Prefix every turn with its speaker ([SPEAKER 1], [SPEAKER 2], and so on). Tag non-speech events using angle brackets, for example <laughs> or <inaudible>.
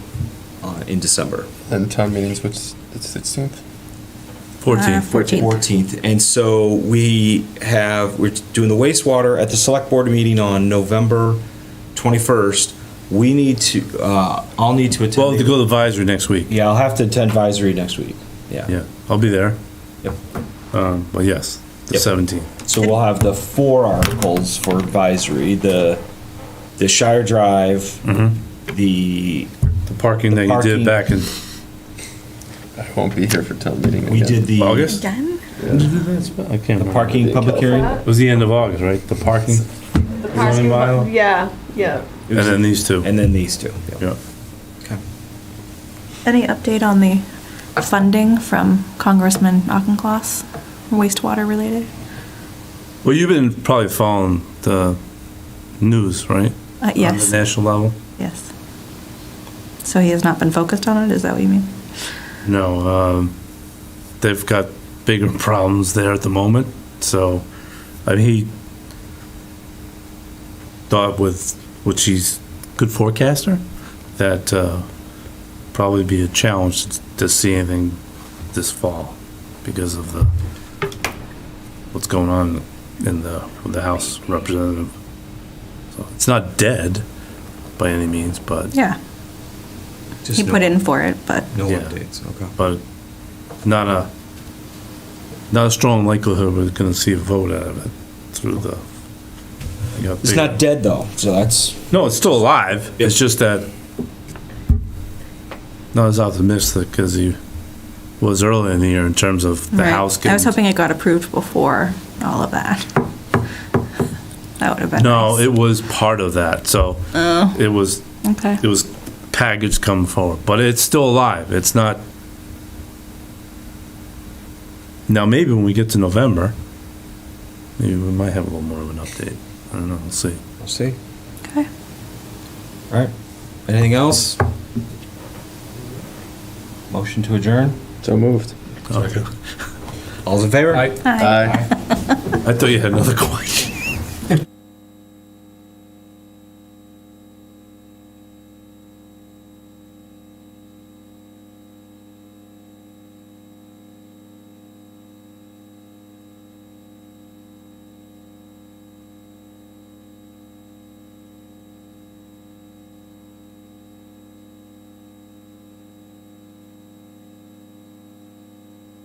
[SPEAKER 1] uh, in December.
[SPEAKER 2] And town meetings, which, it's 16th?
[SPEAKER 1] Uh,
[SPEAKER 3] Fourteenth. 14th.
[SPEAKER 1] 14th. And so we have, we're doing the wastewater at the select board meeting on November 21st. We need to, uh, I'll need to
[SPEAKER 3] Well,
[SPEAKER 1] attend. the-
[SPEAKER 3] to go to advisory next week,
[SPEAKER 1] Yeah, I'll have to attend advisory next week. Yeah.
[SPEAKER 3] yeah, I'll be there,
[SPEAKER 1] Yep.
[SPEAKER 3] um, but yes, the
[SPEAKER 1] Yep.
[SPEAKER 3] seventeenth.
[SPEAKER 1] So we'll have the four articles for advisory, the, the Shire Drive,
[SPEAKER 3] Mm-hmm.
[SPEAKER 1] Mm-hmm. the,
[SPEAKER 3] The parking that you
[SPEAKER 1] Parking.
[SPEAKER 3] did back in
[SPEAKER 2] I won't be here for town meeting.
[SPEAKER 1] we did the.
[SPEAKER 3] August?
[SPEAKER 4] Done?
[SPEAKER 3] I can't
[SPEAKER 1] The
[SPEAKER 3] remember.
[SPEAKER 1] parking public hearing.
[SPEAKER 3] It was the end of August, right? The parking,
[SPEAKER 5] The parking lot,
[SPEAKER 3] bylaw?
[SPEAKER 5] yeah, yeah.
[SPEAKER 3] and then these two.
[SPEAKER 1] And then these two. yeah.
[SPEAKER 3] Yeah.
[SPEAKER 1] Okay.
[SPEAKER 4] Any update on the funding from Congressman Auchincloss, wastewater related?
[SPEAKER 3] Well, you've been probably following the news, right?
[SPEAKER 4] Uh,
[SPEAKER 3] On
[SPEAKER 4] yes,
[SPEAKER 3] the national level?
[SPEAKER 4] yes. So he has not been focused on it, is that what you mean?
[SPEAKER 3] No, um, they've got bigger problems there at the moment. So, I mean, he thought with which he's good forecaster that uh, probably be a challenge to see anything this fall because of the what's going on in the with the House representative. So it's not dead by any means, but
[SPEAKER 4] Yeah, he
[SPEAKER 1] Just
[SPEAKER 4] put in for it, but
[SPEAKER 1] No
[SPEAKER 3] Yeah.
[SPEAKER 1] updates, okay.
[SPEAKER 3] but not a, not a strong likelihood we're gonna see a vote out of it through the. you got
[SPEAKER 1] It's
[SPEAKER 3] big-
[SPEAKER 1] not dead though, so that's,
[SPEAKER 3] No, it's still alive, it's
[SPEAKER 1] Yeah.
[SPEAKER 3] just that not as optimistic as he was earlier in the year in terms of the
[SPEAKER 4] Right.
[SPEAKER 3] House
[SPEAKER 4] I
[SPEAKER 3] getting.
[SPEAKER 4] was hoping it got approved before all of that. <laughs> That would have been
[SPEAKER 3] No,
[SPEAKER 4] nice.
[SPEAKER 3] it was part of that, so
[SPEAKER 4] Oh.
[SPEAKER 3] it was,
[SPEAKER 4] Okay,
[SPEAKER 3] it was packaged coming forward, but it's still alive, it's not. Now, maybe when we get to November, maybe we might have a little more of an update. I don't know, we'll see.
[SPEAKER 1] we'll see.
[SPEAKER 4] okay.
[SPEAKER 1] All right. Anything else? Motion to adjourn?
[SPEAKER 2] So moved.
[SPEAKER 1] All's in favor?
[SPEAKER 3] <laughs> I thought you had another <laughs> question.